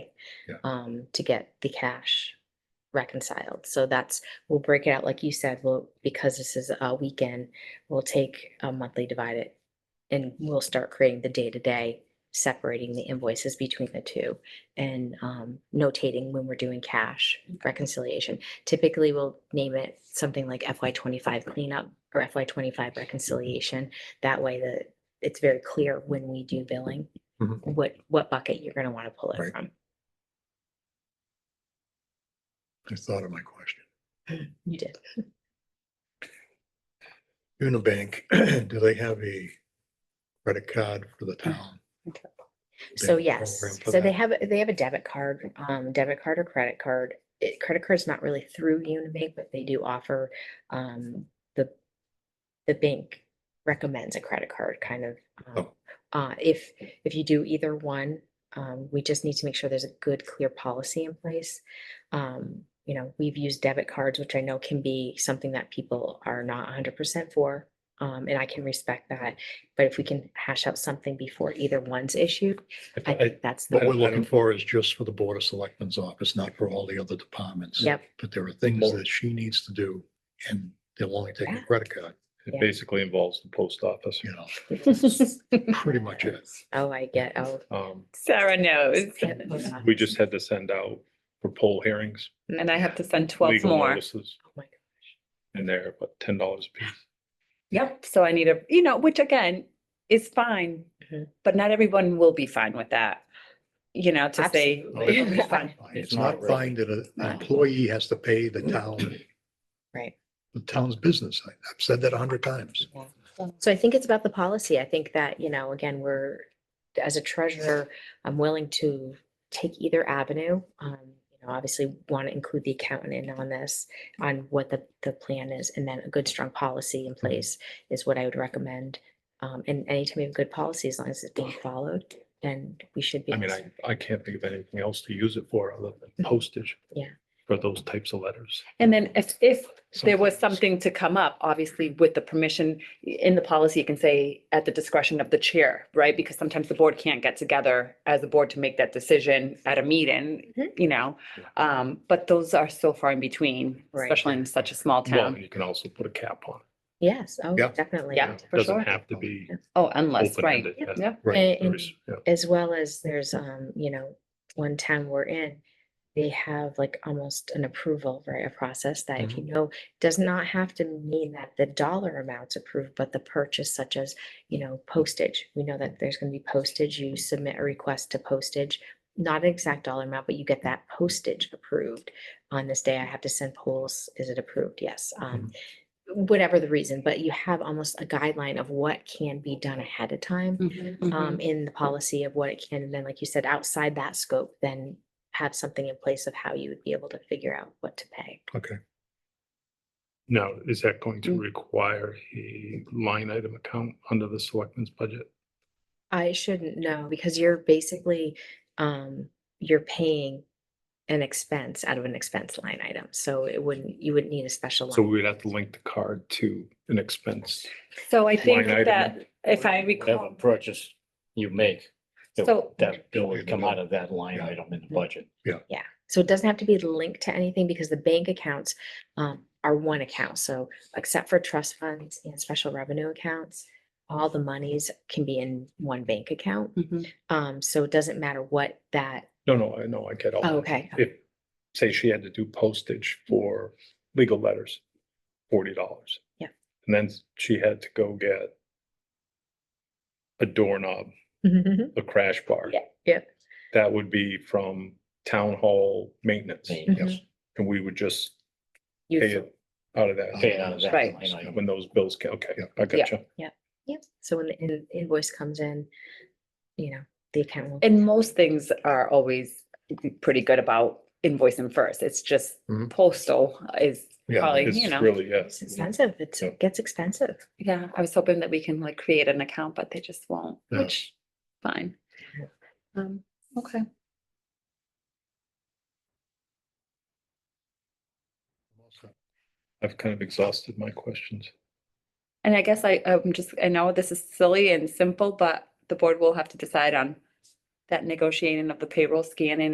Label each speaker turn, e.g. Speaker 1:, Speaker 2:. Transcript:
Speaker 1: Yeah.
Speaker 2: um, to get the cash reconciled. So that's, we'll break it out, like you said, we'll, because this is a weekend, we'll take a monthly divide it. And we'll start creating the day-to-day, separating the invoices between the two and um, notating when we're doing cash reconciliation. Typically, we'll name it something like FY twenty-five cleanup or FY twenty-five reconciliation. That way the, it's very clear when we do billing,
Speaker 1: Mhm.
Speaker 2: what, what bucket you're gonna want to pull
Speaker 1: Right.
Speaker 2: it from.
Speaker 1: I thought of my question.
Speaker 2: You did.
Speaker 1: Unibank, do they have a credit card for the town? They
Speaker 2: So
Speaker 1: have a
Speaker 2: yes,
Speaker 1: program for
Speaker 2: so they
Speaker 1: that?
Speaker 2: have, a- they have a debit card, um, debit card or credit card. It, credit card's not really through Unibank, but they do offer, um, the, the bank recommends a credit card kind of. um, Uh, if, if you do either one, um, we just need to make sure there's a good, clear policy in place. Um, you know, we've used debit cards, which I know can be something that people are not hundred percent for. Um, and I can respect that, but if we can hash out something before either one's issued, I
Speaker 1: I-
Speaker 2: think that's. the
Speaker 1: What we're
Speaker 2: way.
Speaker 1: looking for is just for the Board of Selectmen's office, not for all the other departments.
Speaker 2: Yep,
Speaker 1: But there are things that she needs to do and they'll only take a
Speaker 2: Yeah.
Speaker 1: credit card,
Speaker 2: Yeah.
Speaker 3: It basically involves the post office.
Speaker 1: you know, pretty much it.
Speaker 2: oh, I get, oh.
Speaker 3: Um,
Speaker 4: Sarah knows.
Speaker 2: Yep, hold on.
Speaker 3: we just had to send out for poll hearings,
Speaker 4: And I have to send twelve
Speaker 3: legal
Speaker 4: more.
Speaker 3: notices,
Speaker 2: Oh my God.
Speaker 3: and they're what, ten dollars a piece?
Speaker 4: Yep. So I need a, you know, which again is fine,
Speaker 2: Mhm.
Speaker 4: but not everyone will be fine with that. You know, to say.
Speaker 1: No,
Speaker 2: Absolutely.
Speaker 1: It's
Speaker 4: it'll be
Speaker 1: not
Speaker 4: fine.
Speaker 1: fine. It's not fine that an
Speaker 4: No.
Speaker 1: employee has to pay the town,
Speaker 2: Right.
Speaker 1: the town's business. I- I've said that a hundred times.
Speaker 2: So I think it's about the policy. I think that, you know, again, we're, as a treasurer, I'm willing to take either avenue. Um, you know, obviously want to include the accountant in on this, on what the, the plan is, and then a good, strong policy
Speaker 1: Mm-hmm.
Speaker 2: in place is what I would recommend. Um, and anytime we have good policy, as long as it's being followed, then we should be.
Speaker 3: I mean, I, I can't think of anything else to use it for other than postage.
Speaker 2: Yeah.
Speaker 3: For those types of letters.
Speaker 4: And then if, if there was
Speaker 1: Sometimes.
Speaker 4: something to come up, obviously with the permission in the policy, you can say at the discretion of the chair, right? Because sometimes the board can't get together as a board to make that decision at a meeting,
Speaker 2: Mhm.
Speaker 4: you know? Um, but those are so far in between,
Speaker 2: Right.
Speaker 4: especially in such a small
Speaker 3: Well,
Speaker 4: town.
Speaker 3: you can also put a cap on
Speaker 2: Yes, oh,
Speaker 1: Yeah.
Speaker 2: definitely.
Speaker 4: Yeah.
Speaker 3: it.
Speaker 4: For
Speaker 3: Doesn't
Speaker 4: sure.
Speaker 3: have to be
Speaker 4: Oh, unless, right.
Speaker 2: Yep.
Speaker 3: open-ended.
Speaker 4: Yeah.
Speaker 1: Right.
Speaker 2: And-
Speaker 3: There
Speaker 2: and-
Speaker 3: is- yeah.
Speaker 2: as well as there's, um, you know, one town we're in, they have like almost an approval, right, a process that if you know, does not have to mean that the dollar amount's approved, but the purchase such as, you know, postage. We know that there's gonna be postage, you submit a request to postage, not an exact dollar amount, but you get that postage approved. On this day, I have to send polls, is it approved? Yes, um, whatever the reason, but you have almost a guideline of what can be done ahead of time um, in the policy of what it can, and then, like you said, outside that scope, then have something in place of how you would be able to figure out what to pay.
Speaker 1: Okay.
Speaker 3: Now, is that going to
Speaker 4: Mm.
Speaker 3: require a line item account under the selectmen's budget?
Speaker 2: I shouldn't know, because you're basically, um, you're paying an expense out of an expense line item, so it wouldn't, you wouldn't need a special
Speaker 3: So
Speaker 2: line.
Speaker 3: we would have to link the card to an expense.
Speaker 4: So I
Speaker 5: line
Speaker 4: think
Speaker 5: item
Speaker 4: that if I
Speaker 5: Whatever
Speaker 4: recall,
Speaker 5: purchase you make, that-
Speaker 4: So-
Speaker 5: that bill would come out of that line item in the budget.
Speaker 2: So it doesn't have to be linked to anything, because the bank accounts, um, are one account, so except for trust funds and special revenue accounts, all the monies can be in one bank account,
Speaker 4: Mhm.
Speaker 2: um, so it doesn't matter what that,
Speaker 3: No, no, I know, I get all.
Speaker 2: oh,
Speaker 3: that.
Speaker 2: okay,
Speaker 3: If, say she had to do postage for legal letters, forty dollars.
Speaker 2: Yeah.
Speaker 3: And then she had to go get a doorknob,
Speaker 2: Mhm.
Speaker 3: a crash bar.
Speaker 2: Yeah, yeah.
Speaker 3: That would be from town hall maintenance,
Speaker 2: Mm-hmm.
Speaker 5: Yes.
Speaker 3: and we would just
Speaker 2: You
Speaker 3: pay
Speaker 2: fl-
Speaker 3: it out of that.
Speaker 5: Pay it out of that
Speaker 4: Right.
Speaker 5: line item.
Speaker 3: When those bills, ca- okay,
Speaker 1: Yeah.
Speaker 3: I gotcha.
Speaker 2: Yep. So when the in- invoice comes in, you know, the account will.
Speaker 4: and most things are always pretty good about invoicing first. It's just
Speaker 1: Mhm. postal
Speaker 4: postal is
Speaker 1: Yeah.
Speaker 4: probably, you
Speaker 3: It's
Speaker 4: know.
Speaker 3: really, yes.
Speaker 2: It's expensive. It's,
Speaker 3: Yeah.
Speaker 2: it gets expensive.
Speaker 4: Yeah, I was hoping that we can like create an account, but they just won't,
Speaker 1: Yeah.
Speaker 4: which, fine.
Speaker 2: Yeah.
Speaker 4: Um, okay.
Speaker 3: I've kind of exhausted my questions.
Speaker 4: And I guess I, I'm just, I know this is silly and simple, but the board will have to decide on that negotiating of the payroll scanning